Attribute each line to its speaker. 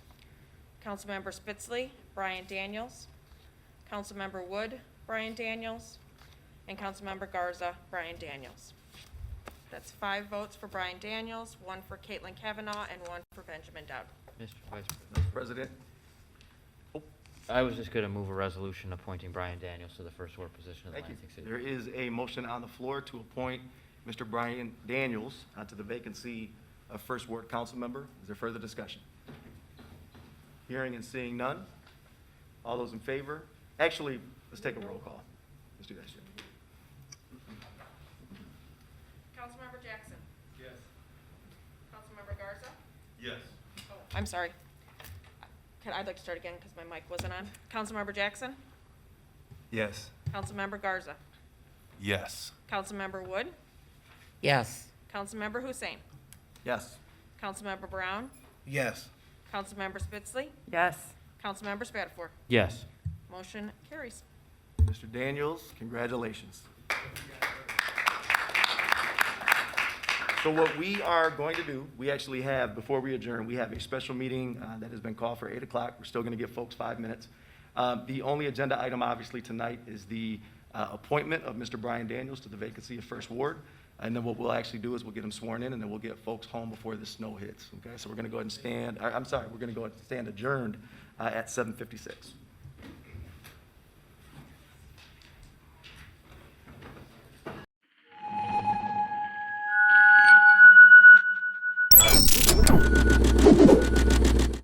Speaker 1: Councilmember Spitzley, Brian Daniels. Councilmember Wood, Brian Daniels. And Councilmember Garza, Brian Daniels. That's five votes for Brian Daniels, one for Caitlin Kavanaugh, and one for Benjamin Dowd.
Speaker 2: Mr. Vice President.
Speaker 3: Mr. President,
Speaker 2: I was just going to move a resolution appointing Brian Daniels to the first ward position of the
Speaker 3: thank you.
Speaker 2: Lansing City.
Speaker 3: There is a motion on the floor to appoint Mr. Brian Daniels onto the vacancy of First Ward Council Member. Is there further discussion? Hearing and seeing none. All those in favor? Actually, let's take a roll call. Let's do that shit.
Speaker 1: Councilmember Jackson.
Speaker 4: Yes.
Speaker 1: Councilmember Garza.
Speaker 4: Yes.
Speaker 1: Oh, I'm sorry. Can, I'd like to start again because my mic wasn't on. Councilmember Jackson.
Speaker 4: Yes.
Speaker 1: Councilmember Garza.
Speaker 4: Yes.
Speaker 1: Councilmember Wood.
Speaker 5: yes,
Speaker 1: Councilmember Hussein.
Speaker 3: Yes.
Speaker 1: Councilmember Brown.
Speaker 4: Yes.
Speaker 1: Councilmember Spitzley.
Speaker 6: yes,
Speaker 1: Councilmember Spatafor.
Speaker 2: Yes.
Speaker 1: Motion carries.
Speaker 3: Mr. Daniels, congratulations. So what we are going to do, we actually have, before we adjourn, we have a special meeting uh, that has been called for 8 o'clock. We're still going to give folks five minutes. Um, The only agenda item, obviously, tonight is the uh, appointment of Mr. Brian Daniels to the vacancy of First Ward. And then what we'll actually do is we'll get him sworn in, and then we'll get folks home before the snow hits, okay? So we're going to go ahead and stand, I- I'm sorry, we're going to go ahead and stand adjourned uh, at 7:56.